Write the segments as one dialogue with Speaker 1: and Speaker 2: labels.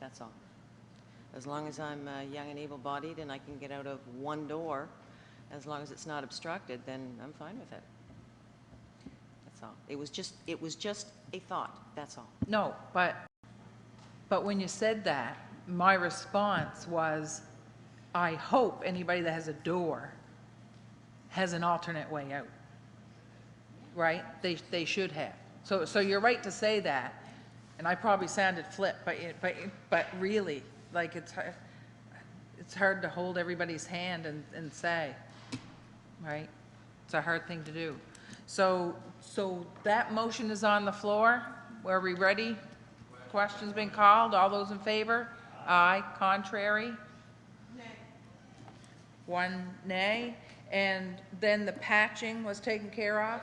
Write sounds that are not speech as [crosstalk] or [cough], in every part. Speaker 1: that's all. As long as I'm uh, young and able-bodied and I can get out of one door, as long as it's not obstructed, then I'm fine with it. That's all. It was just, it was just a thought, that's all.
Speaker 2: No, but, but when you said that, my response was, I hope anybody that has a door has an alternate way out. Right? They, they should have. So, so you're right to say that, and I probably sounded flip, but, it- but, it- but really, like, it's, hard- it's hard to hold everybody's hand and, and say, right? It's a hard thing to do. So, so that motion is on the floor. Are we ready? Questions been called? All those in favor? Aye. Contrary? Nay. One nay. And then the patching was taken care of?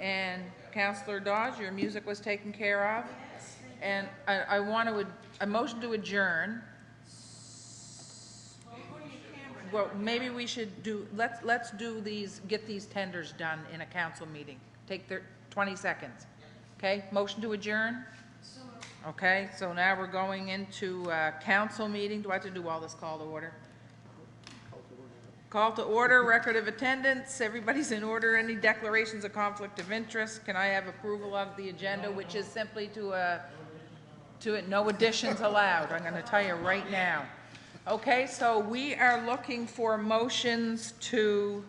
Speaker 2: And Counselor Dodge, your music was taken care of? And I, I want to, a motion to adjourn. Well, maybe we should do, let's, let's do these, get these tenders done in a council meeting. Take their, 20 seconds. Okay, motion to adjourn? Okay, so now we're going into uh, council meeting. Do I have to do all this call to order? Call to order, record of attendance, everybody's in order, any declarations of conflict of interest? Can I have approval of the agenda, which is simply to, uh, to it, no additions allowed, I'm gonna tell you right now. Okay, so we are looking for motions to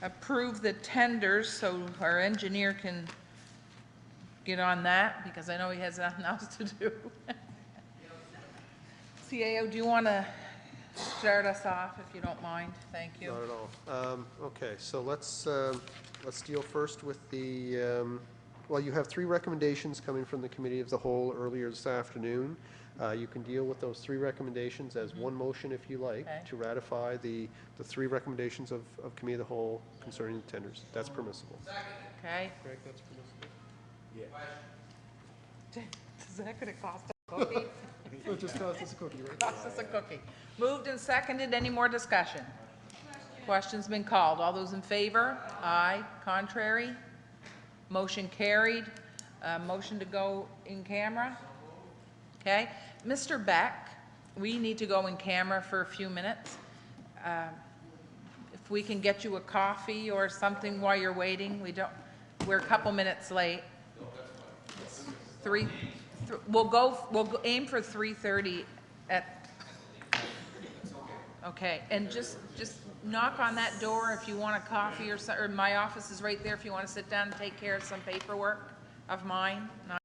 Speaker 2: approve the tenders, so our engineer can get on that, because I know he has nothing [laughs] else to do. CAO, do you wanna start us off, if you don't mind? Thank you.
Speaker 3: Not at all. Um, Okay, so let's, um, let's deal first with the, um, well, you have three recommendations coming from the Committee of the Whole earlier this afternoon. Uh, You can deal with those three recommendations as one motion if you like,
Speaker 2: Okay.
Speaker 3: to ratify the, the three recommendations of, of Committee of the Whole concerning the tenders. That's permissible.
Speaker 2: Okay?
Speaker 3: Greg, that's permissible?
Speaker 2: [laughs] Is that gonna cost a cookie?
Speaker 3: [laughs] It just costs us a cookie, right?
Speaker 2: Cost us a cookie. Moved and seconded, any more discussion? Question's been called, all those in favor? Aye, contrary? Motion carried, Uh, motion to go in camera? Okay, Mr. Beck, we need to go in camera for a few minutes. Um, If we can get you a coffee or something while you're waiting, we don't, we're a couple minutes late. Three, th- we'll go, we'll go- aim for 3:30 at, okay, and just, just knock on that door if you want a coffee or so, or my office is right there if you want to sit down and take care of some paperwork of mine, not